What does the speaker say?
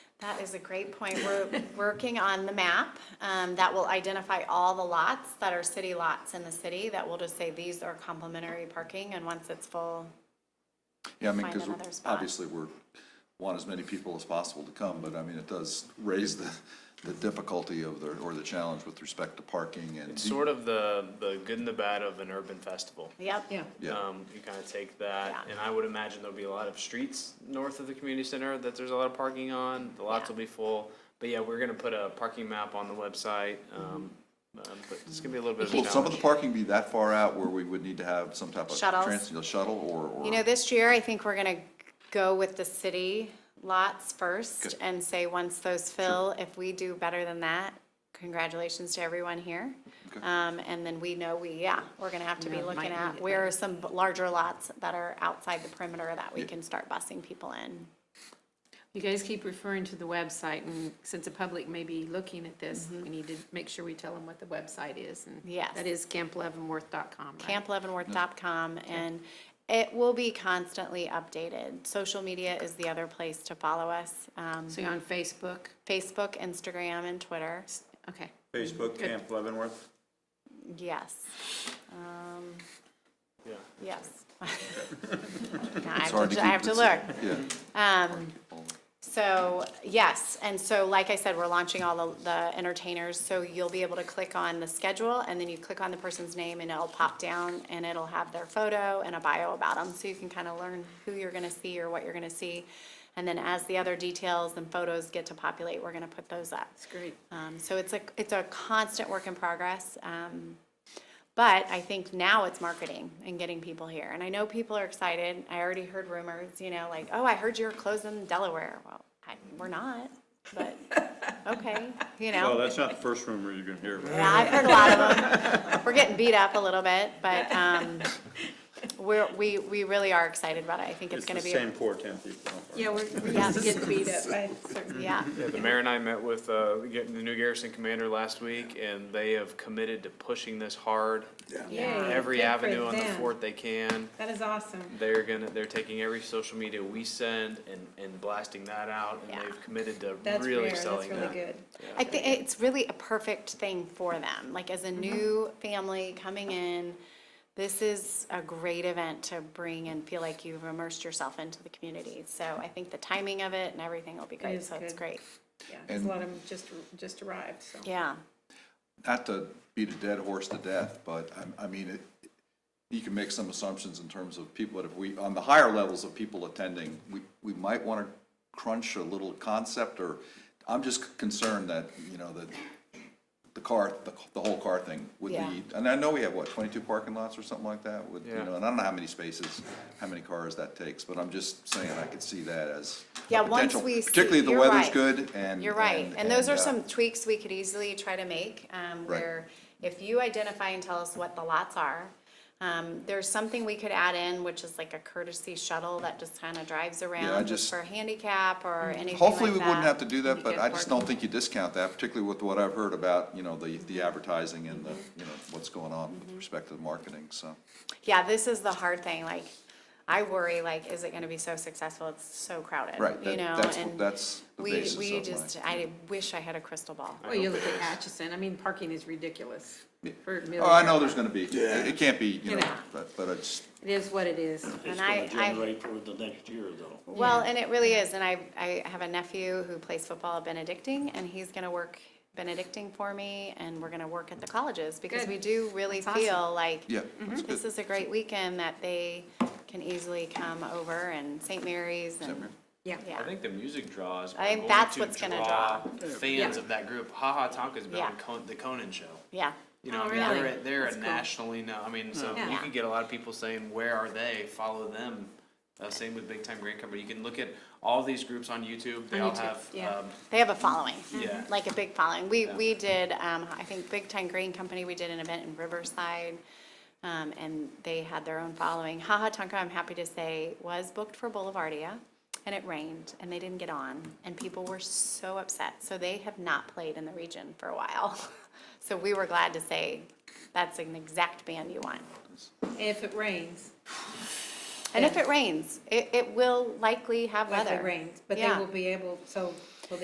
That is a great point. We're working on the map um, that will identify all the lots that are city lots in the city that will just say these are complimentary parking, and once it's full, Yeah, I mean, Find because another spot. obviously we're, want as many people as possible to come, but I mean, it does raise the, the difficulty of the, or the challenge with respect to parking and. It's sort of the, the good and the bad of an urban festival. yep. Yeah, Yeah, Um, you kind of take that, Yeah. and I would imagine there'll be a lot of streets north of the community center that there's a lot of parking on, the lots Yeah. will be full. But yeah, we're gonna put a parking map on the website, um, um, but it's gonna be a little bit of a will Mm-hmm. some of the challenge. parking be that far out where we would need to have some type of Shuttles. trans, you know, shuttle or, or? You know, this year, I think we're going to go with the city lots first Good. and say, once those fill, if we do better than that, congratulations to everyone here. Okay. Um, And then we know we, yeah, we're going to have to be Yeah, might looking need at it where are some larger lots that are outside the perimeter that we Yeah. can start busing people in. you guys keep referring to the website, and since the public may be looking at this, we need to make sure we tell them what the website is. and Mm-hmm. Yes. That is campleavenworth.com, right? campleavenworth.com, and it will be constantly updated. Social media is the other place to follow us, um, So you're on Facebook, Facebook, Instagram, and Twitter, okay. Facebook Good. Camp Leavenworth. yes. Um, Yeah. Yes. Now, I It's have hard to- I have to keep- look. it's- Um, Yeah. So, yes, and so like I said, we're launching all the- the entertainers, so you'll be able to click on the schedule, and then you click on the person's name, and it'll pop down, and it'll have their photo and a bio about them, so you can kind of learn who you're gonna see or what you're gonna see. And then as the other details and photos get to populate, we're gonna put those up. It's great. Um, So it's a, it's a constant work in progress. um, But I think now it's marketing and getting people here. And I know people are excited. I already heard rumors, you know, like, oh, I heard you're closing Delaware. Well, I, we're not, but, okay, you Well, know. that's not the first rumor you're gonna hear. Yeah, I've heard a lot of them. We're getting beat up a little bit, but um, we're, we, we really are excited about it. I think it's It's the gonna be. same poor ten people. Yeah, we're, we're Yeah. getting beat up by certain Yeah, Yeah, the mayor and I met with, uh, the gar- the new garrison commander last week, and they have committed to pushing this hard. Yay, Every good for avenue on the them. fort they can. That is awesome. They're gonna, they're taking every social media we send and, and blasting that out, and Yeah. they've committed to That's rare, really that's selling really that. good. I think it's really a perfect thing for them, like Mm-hmm. as a new family coming in, this is a great event to bring and feel like you've immersed yourself into the community. So I think the timing of it and everything will be great, is so it's good. great. Yeah, 'cause And- a lot of them just, just arrived, so. Yeah, not to beat a dead horse to death, but I, I mean, it, you can make some assumptions in terms of people that if we, on the higher levels of people attending, we, we might want to crunch a little concept or, I'm just concerned that, you know, that the car, the, the whole car thing would Yeah. be, and I know we have, what, twenty-two parking lots or something like that with, you Yeah. know, and I don't know how many spaces, how many cars that takes, but I'm just saying I could see that as a Yeah, once potential, we see- particularly if the you're weather's right. good and. you're right. And those are uh, some tweaks we could easily try to make, um, where if you identify and tell us what the lots are, um, there's something we could add in, which is like a courtesy shuttle that just kind of drives around just just- Mm. for handicap or anything like that. Hopefully, we wouldn't have to do that, You but get I just parking. don't think you discount that, particularly with what I've heard about, you know, the, the advertising and the, Mm-hmm. you know, what's going on with respect to the marketing, so. Yeah, this is the hard thing, like, I worry, like, is it gonna be so successful, it's so crowded, Right, you that- know, that's, and that's the we, basis we of just, my. I wish I had a crystal ball. Well, you look at Atchison, I mean, parking is ridiculous. for Oh, I know millions. there's gonna be, it it can't be, you know, Yeah. but, but it's, It is what it is. And I, It's gonna I, generate for the next year though. well, and it really is, and I, I have a nephew who plays football at Benedictine, and he's gonna work Benedictine for me, and we're gonna work at the colleges, because Good. we do really That's awesome. feel like yeah, that's this good. is a great weekend that they can easily come over, and St. Mary's and, Yeah. yeah. I think the music draws. I think are going that's to what's gonna Fans Yeah. of that group, Ha Ha Tonka's been Yeah. on Con- the Conan show. yeah. You know, Oh, I mean, they're, really? a- they're That's a cool. nationally known, I mean, so Yeah. you Yeah. could get a lot of people saying, where are they? Follow them. Uh, same with Big Time Grand Company. You can look at all these groups on YouTube. They all On YouTube, have, yeah. um, They have a following. Yeah. Like a big following. We, we did, um, I think Big Time Grain Company, we did an event in Riverside. Um, and they had their own following. Haha Tonka, I'm happy to say, was booked for Boulevardia and it rained and they didn't get on and people were so upset. So they have not played in the region for a while. So we were glad to say, that's an exact band you want. If it rains. And if it rains, it, it will likely have Like weather. it rains, but they Yeah. will be able, so